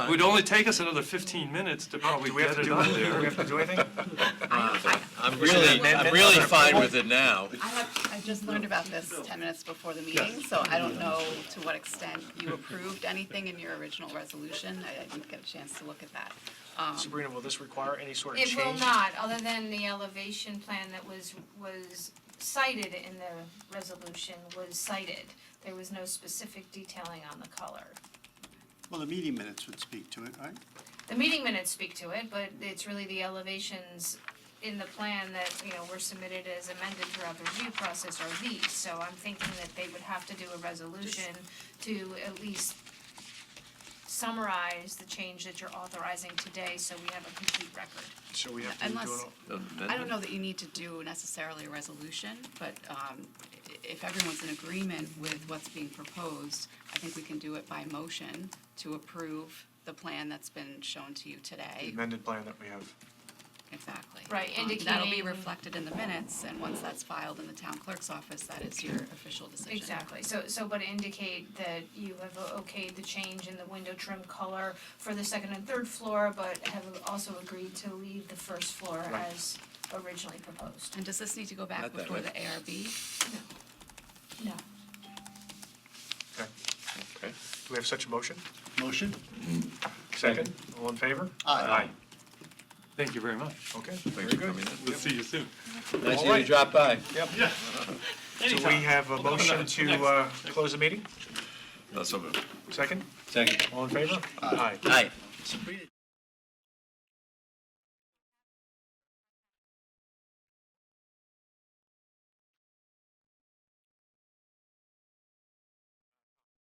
It would only take us another 15 minutes to probably Do we have get to it do, up do we there. have to do anything? I'm Is it an really, amendment I'm really or fine approval? with it now. I have, I just learned about this 10 minutes before the meeting, so I don't know to what extent you approved anything in your original resolution. I I didn't get a chance to look at that. Um, Sabrina, will this require any sort of It change? will not, other than the elevation plan that was, was cited in the resolution was cited. There was no specific detailing on the color. Well, the meeting minutes would speak to it, right? The meeting minutes speak to it, but it's really the elevations in the plan that, you know, were submitted as amended throughout the review process are these. So I'm thinking that they would have to do a resolution to at least summarize the change that you're authorizing today, so we have a complete record. So we have to do it Unless, all? I don't know that you need to do necessarily a resolution, but um, i- if everyone's in agreement with what's being proposed, I think we can do it by motion to approve the plan that's been shown to you The today. amended plan that we have. Exactly. Right, Um, That'll be indicating- reflected in the minutes, and once that's filed in the town clerk's office, that is your official decision. Exactly, so, so, but indicate that you have okayed the change in the window trim color for the second and third floor, but have also agreed to leave the first floor Right. as originally proposed. And does this need to go back Not that before way. the ARB? No, Okay. Okay. Do we have such a motion? Motion? Second? All in favor? Aye. Thank you very much. Okay. Thanks for very coming good. in. We'll see you soon. Nice All of you right. to drop by. Yep. Do we have a motion to uh, close the meeting? That's all. Second? Second. All in favor? Aye. Aye.